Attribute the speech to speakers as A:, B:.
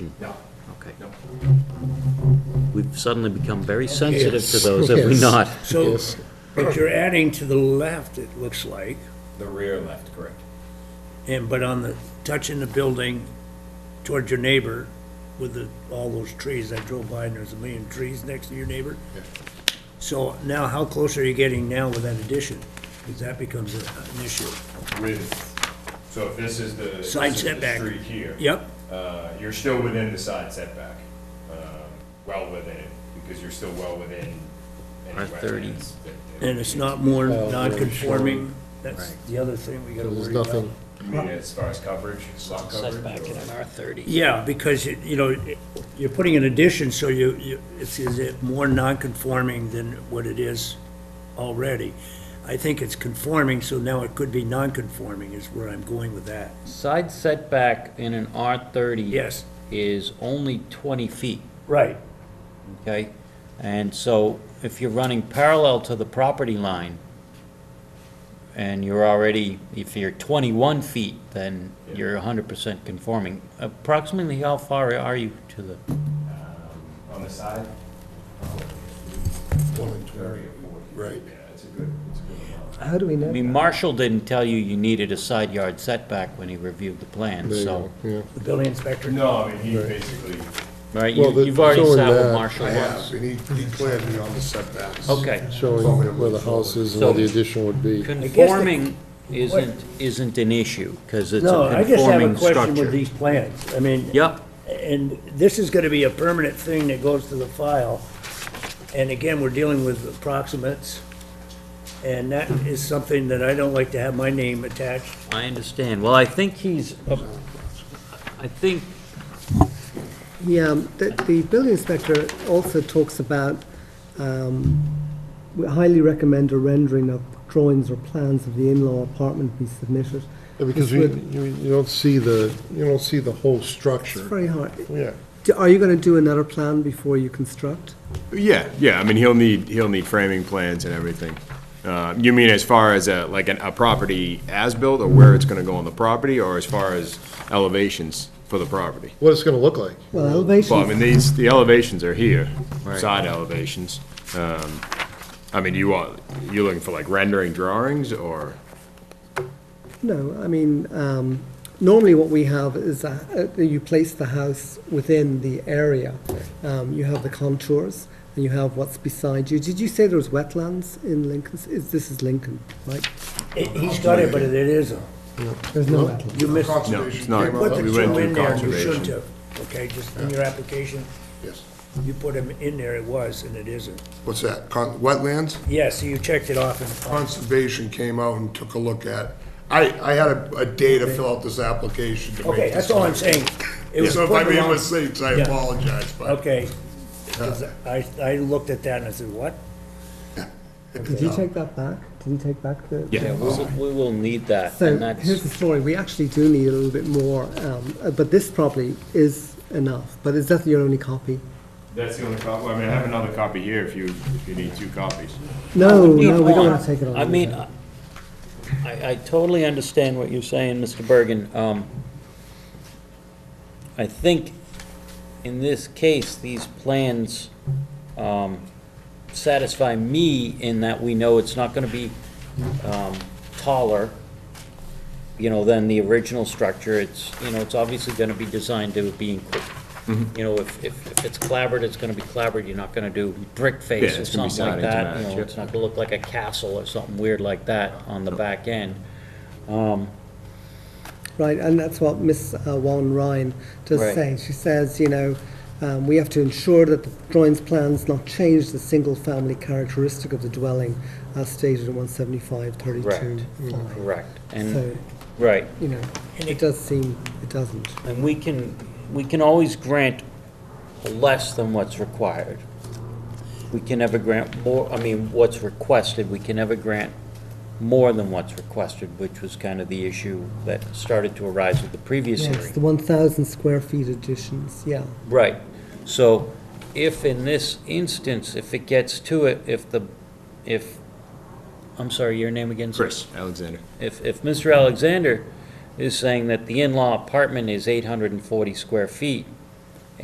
A: No,
B: Okay.
A: no.
B: We've suddenly become very sensitive to those, have we not?
C: So, but you're adding to the left, it looks like,
A: The rear left, correct.
C: and, but on the, touching the building towards your neighbor with the, all those trees, I drove by and there's a million trees next to your neighbor. So now how close are you getting now with that addition? Because that becomes a- an issue.
A: With, so if this is the.
C: Side
A: this is the
C: setback.
A: Street here.
C: Yep,
A: Uh, you're still within the side setback, um, well within it, because you're still well within. any
B: Our 30.
A: wetlands that- that-
C: and it's not more
D: Well, we're
C: non-conforming,
D: showing-
C: that's the other thing we gotta
D: There's
C: worry about.
D: nothing,
A: You mean as far as coverage, lot coverage?
B: Setback in
A: or-
B: an R thirty.
C: Yeah, because, you you know, it- you're putting an addition, so you, you- it's, is it more non-conforming than what it is already? I think it's conforming, so now it could be non-conforming is where I'm going with that.
B: Side setback in an R thirty.
C: Yes.
B: Is only twenty feet,
C: Right.
B: okay? And so if you're running parallel to the property line and you're already, if you're twenty-one feet, then you're hundred percent conforming. Approximately how far are you to the?
A: On the side? Thirty or forty.
D: Right.
A: Yeah, it's a good, it's a good amount.
E: How do we
B: I
E: know?
B: mean, Marshall didn't tell you you needed a side yard setback when he reviewed the plan,
D: there you
B: so,
D: go, yeah.
C: The building inspector,
A: No, I mean, he basically,
B: right,
D: Well,
B: you-
D: the-
B: you've already
D: showing
B: sat with
D: that-
B: Marshall
F: I have,
B: once.
F: and he, he cleared me on the setbacks.
B: Okay,
D: Showing where the house is and where the addition would be.
B: conforming isn't, isn't an issue, because it's
C: no,
B: a
C: I just have a
B: conforming
C: question with
B: structure.
C: these plans. I mean.
B: Yep,
C: And this is gonna be a permanent thing that goes to the file. And again, we're dealing with approximates. And that is something that I don't like to have my name attached
B: I understand. Well, I think he's,
C: Oh.
B: I think,
E: Yeah, um, the, the building inspector also talks about, um, we highly recommend a rendering of drawings or plans of the in-law apartment be submitted.
D: Yeah, Because
E: This
D: you,
E: would-
D: you you don't see the, you don't see the whole
E: It's
D: structure.
E: very hard.
D: Yeah,
E: Do- Are you gonna do another plan before you construct?
F: Yeah, yeah, I mean, he'll need, he'll need framing plans and everything. Uh, you mean as far as a, like an, a property as-built, or where it's gonna go on the property, or as far as elevations for the property?
D: what it's gonna look like.
E: Well, elevation.
F: Well, I mean, these, the elevations are here,
B: Right.
F: side elevations. Um, I mean, you want, you looking for like rendering drawings, or?
E: No, I mean, um, normally what we have is a- a- you place the house within the area. Um, You have the contours, and you have what's beside you. Did you say there was wetlands in Lincoln? Is This is Lincoln, right?
C: It- He's got it, but it isn't.
E: There's no wetlands.
C: You missed, you
F: No, it's not.
C: put the
F: We
C: two
F: went
C: in
F: through
C: there, you
F: conservation.
C: shouldn't have. Okay, just in your application,
G: Yes.
C: you put him in there, it was, and it isn't.
G: What's that? Con- Wetlands?
C: Yes, so you checked it off and,
G: Conservation came out and took a look at. I, I had a, a day to fill out this application to make.
C: okay, that's all I'm saying. It was
G: So if I
C: put
G: made
C: wrong-
G: mistakes, I
C: Yeah.
G: apologize, but.
C: Okay. 'Cause I, I looked at that and I said, what?
E: Did he take that back? Did he take back the?
B: yeah, we will- we will need that,
E: So
B: and
E: here's the
B: that's,
E: story. We actually do need a little bit more, um, uh, but this probably is enough. But is that your only copy?
F: That's the only copy, I mean, I have another copy here if you, if you need two copies.
E: No,
B: Need
E: no, we
B: one.
E: don't want to take it on.
B: I mean, I, I totally understand what you're saying, Mr. Bergen. Um, I think in this case, these plans, um, satisfy me in that we know it's not gonna be, um, taller, you know, than the original structure. It's, you know, it's obviously gonna be designed to be,
F: Mm-hmm.
B: inc- you know, if, if, if it's clabbered, it's gonna be clabbered. You're not gonna do brick face
F: Yeah,
B: or
F: it's gonna be
B: something like that.
F: siding to
B: You
F: match,
B: know,
F: yeah.
B: it's not gonna look like a castle or something weird like that on the back end. Um,
E: Right, and that's what Miss uh, Wan Ryan does
B: Right.
E: say. She says, you know, um, we have to ensure that the drawings plans not change the single family characteristic of the dwelling as stated in 175 32.
B: correct.
E: So,
B: And, right.
E: you know, it does seem it doesn't.
B: And we can, we can always grant less than what's required. We can never grant more, I mean, what's requested, we can never grant more than what's requested, which was kind of the issue that started to arise with the previous
E: Yes,
B: hearing.
E: the 1,000 square feet additions, yeah.
B: Right. So if in this instance, if it gets to it, if the, if, I'm sorry, your name again? sir?
F: Chris, Alexander.
B: If, if Mr. Alexander is saying that the in-law apartment is 840 square feet,